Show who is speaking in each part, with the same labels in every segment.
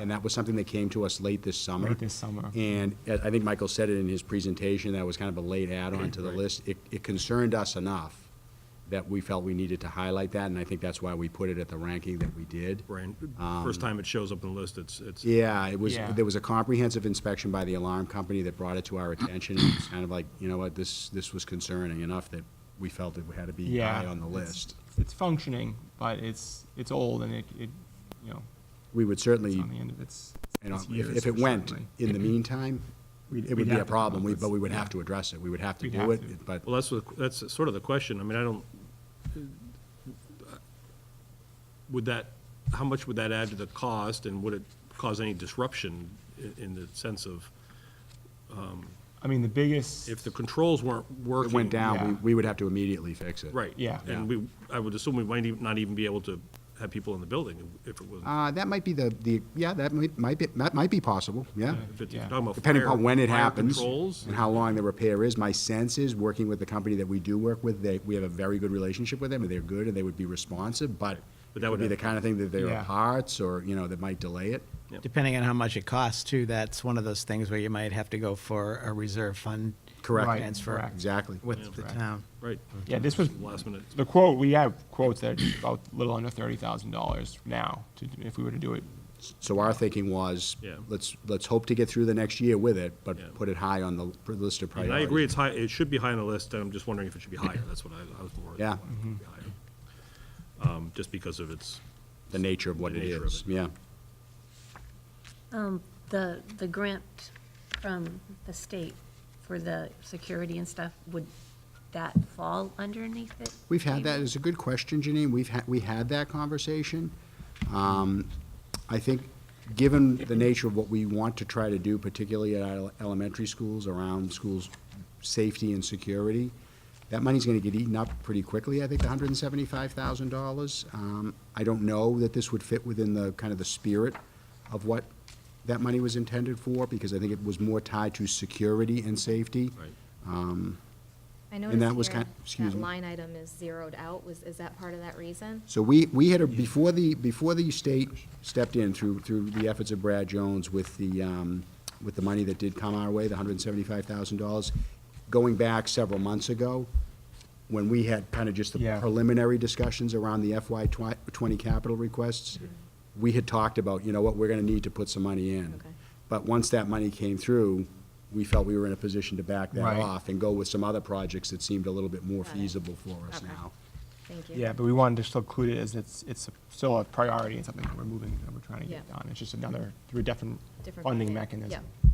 Speaker 1: And that was something that came to us late this summer.
Speaker 2: Late this summer.
Speaker 1: And I I think Michael said it in his presentation, that was kind of a late add-on to the list. It, it concerned us enough that we felt we needed to highlight that, and I think that's why we put it at the ranking that we did.
Speaker 3: Right, first time it shows up in the list, it's, it's,
Speaker 1: Um, Yeah, it was,
Speaker 2: Yeah.
Speaker 1: there was a comprehensive inspection by the alarm company that brought it to our attention. It was kind of like, you know what, this, this was concerning enough that we felt it had to be
Speaker 2: Yeah.
Speaker 1: high on the
Speaker 2: it's-
Speaker 1: list.
Speaker 2: It's functioning, but it's, it's old and it, it, you know,
Speaker 1: We would
Speaker 2: it's
Speaker 1: certainly,
Speaker 2: on the end of its.
Speaker 1: you know,
Speaker 2: its
Speaker 1: if,
Speaker 2: years,
Speaker 1: if it went
Speaker 2: certainly.
Speaker 1: in the meantime,
Speaker 2: We'd-
Speaker 1: it
Speaker 2: we'd
Speaker 1: would be
Speaker 2: have
Speaker 1: a
Speaker 2: to come
Speaker 1: problem,
Speaker 2: up
Speaker 1: We
Speaker 2: with-
Speaker 1: but we would
Speaker 2: yeah.
Speaker 1: have to address it. We would have to
Speaker 2: We'd
Speaker 1: do
Speaker 2: have
Speaker 1: it,
Speaker 2: to.
Speaker 1: but
Speaker 3: well, that's, the- that's sort of the question. I mean, I don't, would that, how much would that add to the cost, and would it cause any disruption i- in the sense of,
Speaker 2: I mean, the biggest.
Speaker 3: if the controls weren't
Speaker 1: if
Speaker 3: working?
Speaker 1: it went down, we,
Speaker 2: Yeah.
Speaker 1: we would have to immediately fix it.
Speaker 3: Right.
Speaker 2: Yeah.
Speaker 3: And we, I would assume we might even- not even be able to have people in the building if it was,
Speaker 1: Uh, that might be the, the, yeah, that might, might be, that might be possible, yeah.
Speaker 3: if it's
Speaker 2: yeah.
Speaker 3: you're talking about
Speaker 1: Depending
Speaker 3: fire-
Speaker 1: upon when it
Speaker 3: fire
Speaker 1: happens
Speaker 3: Controls,
Speaker 1: and how long the repair is. My sense is, working with the company that we do work with, they, we have a very good relationship with them, and they're good, and they would be responsive, but it
Speaker 3: But that
Speaker 1: would
Speaker 3: would
Speaker 1: be the
Speaker 3: have-
Speaker 1: kind of thing that there
Speaker 2: Yeah.
Speaker 1: are parts, or, you know, that might delay it.
Speaker 4: Depending on how much it costs too, that's one of those things where you might have to go for a reserve fund.
Speaker 1: Correct.
Speaker 2: Right,
Speaker 4: Transfer
Speaker 2: correct.
Speaker 1: Exactly.
Speaker 4: with the
Speaker 2: Correct.
Speaker 4: town.
Speaker 3: right.
Speaker 2: Yeah, this was-
Speaker 3: Last minute.
Speaker 2: The quote, we have quotes that are about a little under thirty thousand dollars now to, if we were to do it.
Speaker 1: So our thinking was,
Speaker 3: Yeah.
Speaker 1: let's, let's hope to get through the next year with it,
Speaker 3: Yeah.
Speaker 1: but put it high on the l- list of
Speaker 3: And I
Speaker 1: priorities.
Speaker 3: agree, it's high, it should be high on the list, and I'm just wondering if it should be higher, that's what I, I was more.
Speaker 1: Yeah.
Speaker 3: wondering if it should be higher. Um, just because of its,
Speaker 1: The nature of what
Speaker 3: The
Speaker 1: it
Speaker 3: nature of
Speaker 1: is,
Speaker 3: it.
Speaker 1: yeah.
Speaker 5: Um, the, the grant from the state for the security and stuff, would that fall underneath it?
Speaker 1: We've had that,
Speaker 5: maybe?
Speaker 1: it's a good question, Janine, we've had, we had that conversation. Um, I think, given the nature of what we want to try to do, particularly at our elementary schools, around schools' safety and security, that money's gonna get eaten up pretty quickly, I think, the hundred and seventy-five thousand dollars. Um, I don't know that this would fit within the, kind of the spirit of what that money was intended for, because I think it was more tied to security and safety.
Speaker 3: right.
Speaker 6: I
Speaker 1: And that was
Speaker 6: noticed
Speaker 1: kind-
Speaker 6: here,
Speaker 1: excuse
Speaker 6: that
Speaker 1: me.
Speaker 6: line item is zeroed out, was, is that part of that reason?
Speaker 1: So we, we had, a- before the, before the state stepped in through, through the efforts of Brad Jones with the, um, with the money that did come our way, the hundred and seventy-five thousand dollars, going back several months ago, when we had kind of just the
Speaker 2: Yeah.
Speaker 1: preliminary discussions around the FY twi- twenty capital requests, we had talked about, you know what, we're gonna need to put some money in.
Speaker 6: Okay.
Speaker 1: But once that money came through, we felt we were in a position to back that
Speaker 2: Right.
Speaker 1: off and go with some other projects that seemed a little bit more
Speaker 6: Got it.
Speaker 1: feasible for us
Speaker 6: Okay.
Speaker 1: now.
Speaker 6: Thank you.
Speaker 2: Yeah, but we wanted to still include it as it's, it's still a priority and something that we're moving, that we're trying to get
Speaker 6: Yeah.
Speaker 2: done. It's just another, through a different
Speaker 6: Different
Speaker 2: funding
Speaker 6: bucket,
Speaker 2: mechanism.
Speaker 6: yeah.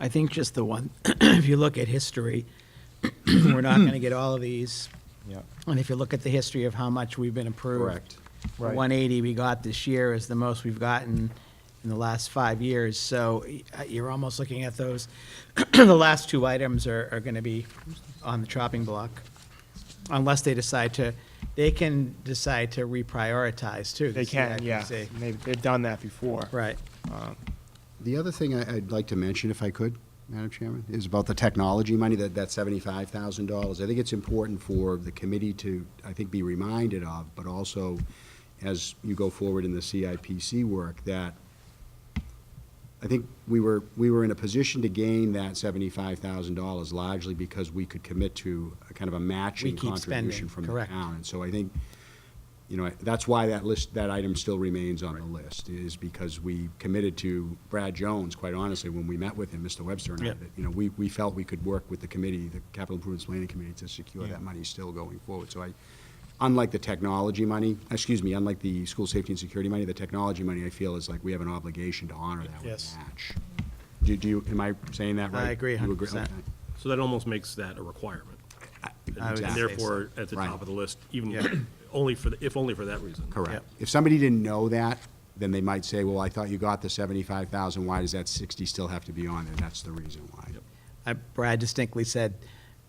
Speaker 4: I think just the one, if you look at history, we're not going to get all of these.
Speaker 2: Yeah.
Speaker 4: And if you look at the history of how much we've been approved.
Speaker 1: Correct.
Speaker 4: the
Speaker 2: Right.
Speaker 4: 180 we got this year is the most we've gotten in the last five years. So y- uh, you're almost looking at those, the last two items are, are going to be on the chopping block. Unless they decide to, they can decide to reprioritize too. the
Speaker 2: They can, yeah.
Speaker 4: CIPC.
Speaker 2: And They've, they've done that before.
Speaker 4: Right.
Speaker 1: The other thing I- I'd like to mention, if I could, Madam Chairman, is about the technology money, that, that seventy-five thousand dollars. I think it's important for the committee to, I think, be reminded of, but also as you go forward in the CIPC work, that I think we were, we were in a position to gain that seventy-five thousand dollars largely because we could commit to a kind of a matching
Speaker 4: We keep spending,
Speaker 1: contribution from the
Speaker 4: correct.
Speaker 1: town. And so I think, you know, that's why that list, that item still remains on the list, is because we committed to Brad Jones, quite honestly, when we met with him, Mr. Webster and I,
Speaker 4: Yeah.
Speaker 1: that, you know, we, we felt we could work with the committee, the Capital Improvements Planning Committee, to secure that money still going forward. So I, unlike the technology money, excuse me, unlike the school safety and security money, the technology money, I feel is like we have an obligation to honor that with
Speaker 4: Yes.
Speaker 1: a match. Do, do you, am I saying that
Speaker 4: I
Speaker 1: right?
Speaker 4: agree
Speaker 1: You
Speaker 4: 100%.
Speaker 1: Okay.
Speaker 3: So that almost makes that a requirement.
Speaker 4: I would
Speaker 3: And
Speaker 4: say
Speaker 3: therefore, at the
Speaker 1: Right.
Speaker 3: top of the list, even, only for, the- if only for that reason.
Speaker 1: Correct.
Speaker 4: Yep.
Speaker 1: If somebody didn't know that, then they might say, well, I thought you got the seventy-five thousand, why does that sixty still have to be on there? That's the reason why.
Speaker 4: I- Brad distinctly said,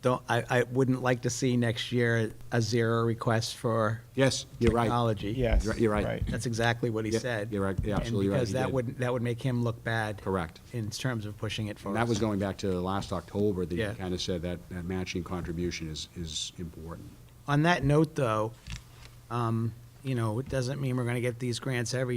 Speaker 4: don't, I, I wouldn't like to see next year a zero request for
Speaker 1: Yes, you're right.
Speaker 4: technology.
Speaker 2: Yes.
Speaker 1: You're right.
Speaker 4: That's exactly what he
Speaker 1: Yeah,
Speaker 4: said.
Speaker 1: you're right. You're
Speaker 4: And
Speaker 1: absolutely right.
Speaker 4: because
Speaker 1: He
Speaker 4: that
Speaker 1: did.
Speaker 4: would, that would make him look bad.
Speaker 1: Correct.
Speaker 4: In terms of pushing it
Speaker 1: And
Speaker 4: forward.
Speaker 1: that was going back to last October, that you
Speaker 4: Yeah.
Speaker 1: kind of said that, that matching contribution is, is important.
Speaker 4: On that note, though, um, you know, it doesn't mean we're gonna get these grants every